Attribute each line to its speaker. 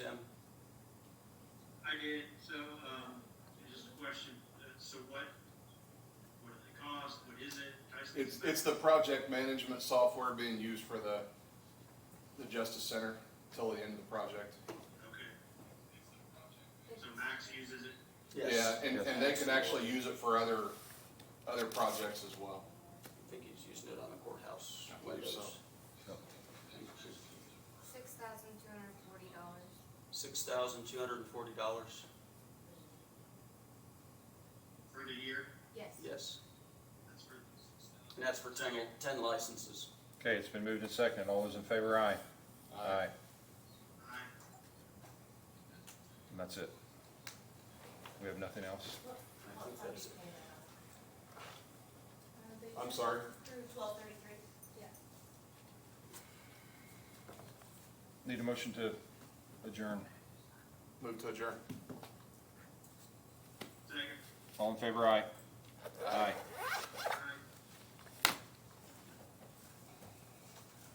Speaker 1: period, so, um, just a question, uh, so what, what are the costs, what is it? Tyson,
Speaker 2: It's, it's the project management software being used for the, the Justice Center till the end of the project.
Speaker 1: Okay. So Max uses it,
Speaker 2: Yeah, and, and they can actually use it for other, other projects as well.
Speaker 3: I think he's used it on the courthouse
Speaker 2: I believe so.
Speaker 3: windows.
Speaker 4: Six thousand two hundred and forty dollars.
Speaker 3: Six thousand two hundred and forty dollars,
Speaker 1: for the year,
Speaker 4: Yes.
Speaker 3: yes,
Speaker 1: that's for,
Speaker 3: and that's for ten, ten licenses.
Speaker 5: Okay, it's been moved and seconded. All those in favor, aye.
Speaker 2: Uh,
Speaker 5: Aye.
Speaker 1: I,
Speaker 5: And that's it. We have nothing else?
Speaker 3: I think that's it.
Speaker 2: I'm sorry?
Speaker 4: Through twelve thirty-three? Yeah.
Speaker 5: Need a motion to adjourn.
Speaker 2: Move to adjourn.
Speaker 1: second.
Speaker 5: All in favor, aye. Aye.